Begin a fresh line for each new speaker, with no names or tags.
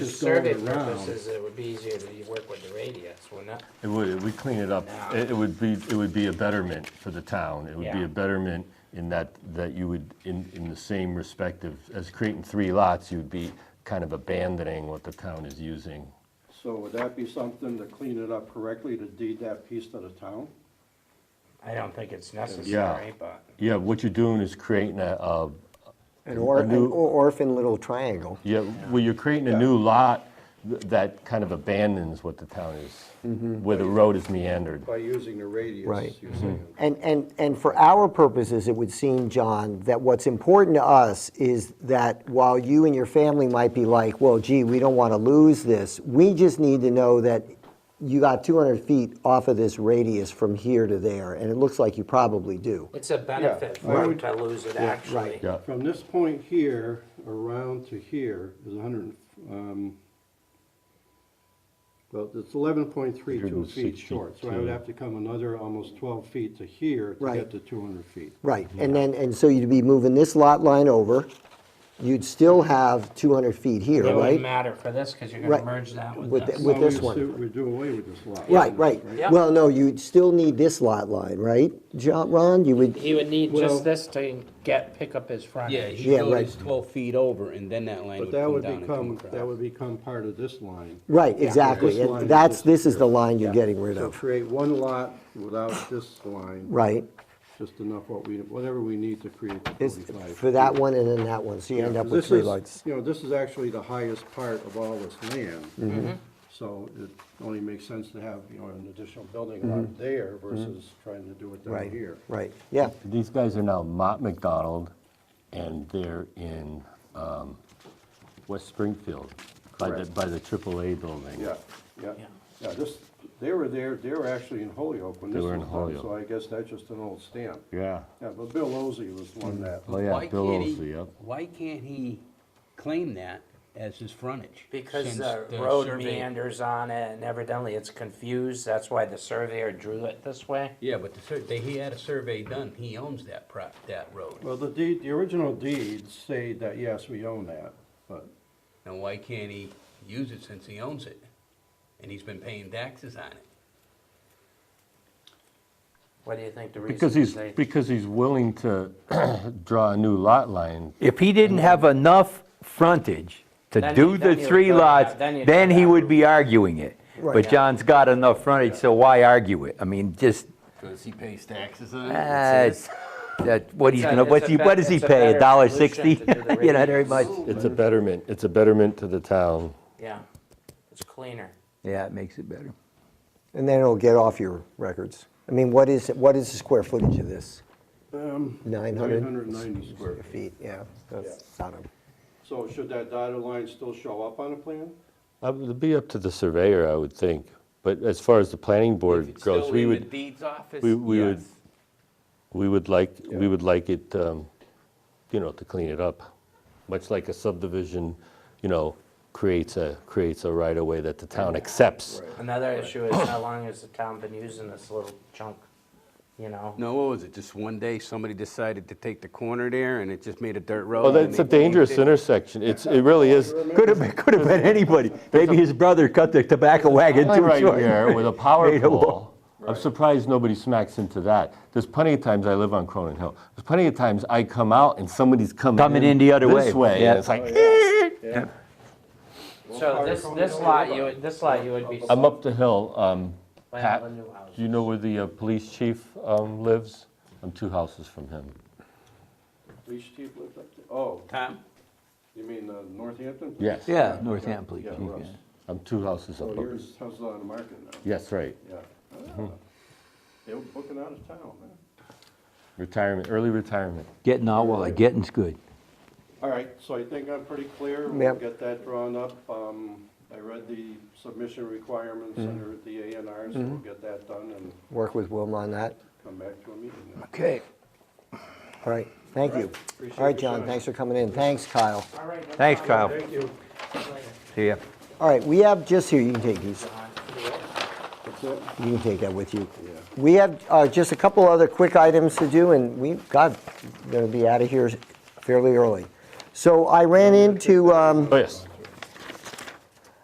just going
survey
around.
purposes, it would be easier to work with the radius, wouldn't it?
It would, it would clean it up. It it would be, it would be a betterment for the town. It would be
Yeah.
a betterment in that, that you would, in, in the same respect of, as creating three lots, you'd be kind of abandoning what the town is using.
So would that be something to clean it up correctly, to deed that piece to the town?
I don't think it's necessary, but
Yeah, what you're doing is creating a, a,
An or-
A new-
an orphan little triangle.
yeah, well, you're creating a new lot th- that kind of abandons what the town is, where the road is meandered.
By using the radius,
Right. Mm-hmm.
you're saying.
And, and, and for our purposes, it would seem, John, that what's important to us is that while you and your family might be like, well, gee, we don't want to lose this, we just need to know that you got 200 feet off of this radius from here to there, and it looks like you probably do.
it's a benefit
I
for them
would-
to lose it actually.
Yeah,
From this point here, around to here is hundred, um, well, it's eleven point three two feet
162.
short, so I would have to come another almost twelve feet to here to
Right.
get to two hundred feet.
Right, and then, and so you'd be moving this lot line over, you'd still have 200 feet here,
It wouldn't
right?
matter for this, because you're gonna
Right.
merge that
With
with
the-
this.
with-
Well,
this
we
one.
do- We do away with this lot.
Right, right.
Yeah.
Well, no, you'd still need this lot line, right, John, Ron? You would,
He would need
Well-
just this to get, pick up his
Yeah,
frontage.
you
Yeah,
go
right.
this twelve feet over, and then that line
But
would
that
come
would
down and come
become,
across.
that would become part of this line.
right,
This
exactly.
line
And
is
That's,
just
this is
here.
the line you're getting rid
So
of,
create one lot without this line,
right?
just enough what we, whatever we need to create the
It's
forty-five.
for that one and then that one, so you end up with
This
three
is,
lights.
you know, this is actually the highest part of all this
Mm-hmm.
land. So it only makes sense to have, you know, an additional building lot there versus trying to do it down
Mm-hmm. Right,
here.
right, yeah,
These guys are now Mott McDonald, and they're in um, West Springfield, by the,
Correct.
by the AAA building.
Yeah, yeah, yeah, this, they were there, they were actually in Holyoke when
They
this
were
was
in
done,
Holyoke.
so I guess that's just an old stamp.
Yeah.
Yeah, but Bill Ozy was the one that,
Oh, yeah,
Why
Bill
can't he-
Olsey, yep.
Why can't he claim that as his frontage?
Because
since
the road
survey-
meanders on it and evidently it's confused, that's why the surveyor drew it this way.
Yeah, but the sur, they, he had a survey done, he owns that prop, that road.
well, the deed, the original deeds say that, yes, we own that, but
Now, why can't he use it since he owns it? And he's been paying taxes on it.
What do you think the reason
Because he's,
is they?
because he's willing to draw a new lot line.
If he didn't have enough frontage to
Then he-
do
then
the
he
three
would go back-
lots,
then he'd
then
go
he
back.
would be arguing it.
Right.
But John's got enough frontage, so why argue it? I mean, just,
Cause he pays taxes on
ah, it's- that, what he's
It's a-
gonna, what's
it's a
he,
bet-
what does he
it's a
pay,
better
a dollar
solution
sixty?
to do the
You know, very
radius.
much,
It's a betterment, it's a betterment to the town.
Yeah, it's cleaner.
yeah, it makes it better.
and then it'll get off your records. I mean, what is, what is the square footage of this?
um,
Nine hundred?
990 square feet.
Feet, yeah, that's not a.
So should that dotted line still show up on the plan?
Uh, It'd be up to the surveyor, I would think, but as far as the planning board goes, we
If it's still in the
would,
deeds office,
we- we would-
yes.
we would like,
Yeah.
we would like it, um, you know, to clean it up. Much like a subdivision, you know, creates a, creates a right-of-way that the town accepts.
Another issue is how long has the town been using this little chunk, you know?
No, what was it, just one day, somebody decided to take the corner there, and it just made a dirt road?
Well,
and
that's a
they changed
dangerous
it?
intersection, it's, it really is.
Could have been, could have been anybody. Maybe his brother cut the tobacco wagon
line
too
right
short.
there with a power
Made a wall.
pole. I'm surprised nobody smacks into that. There's plenty of times I live on Cronin Hill. There's plenty of times I come out and somebody's coming
Coming in the other
this
way,
way.
yeah.
and it's like
So this, this lot, you, would- this lot, you would be.
I'm up the hill. Um,
Well,
Pat,
the new house.
do you know where the uh, police chief um, lives? I'm two houses from him.
Police chief lived up there? Oh,
Tom?
you mean uh, Northampton?
Yes.
Yeah, Northampton,
Yeah,
please.
Russ.
I'm two houses
So
up.
Oh, yours, how's it on the market now?
Yes, right.
Yeah. Ah, They were booking out of town, man.
Retirement, early retirement.
Getting out while the getting's good.
All right, so I think I'm pretty clear. We'll
Yep.
get that drawn up. Um, I read the submission requirements under the A and R, so we'll get that done and
Work with Wilma on that.
come back to a meeting. then.
Okay.
All right, thank you.
Appreciate
All right,
your
John,
time.
thanks for coming in. Thanks, Kyle.
All right, no
Thanks,
problem.
Kyle.
Thank you.
See ya.
All right, we have, just here, you can take these.
That's it?
You can take that with you.
Yeah.
We have uh, just a couple other quick items to do, and we, God, going to be out of here fairly early. So I ran into, um,
Oh, yes.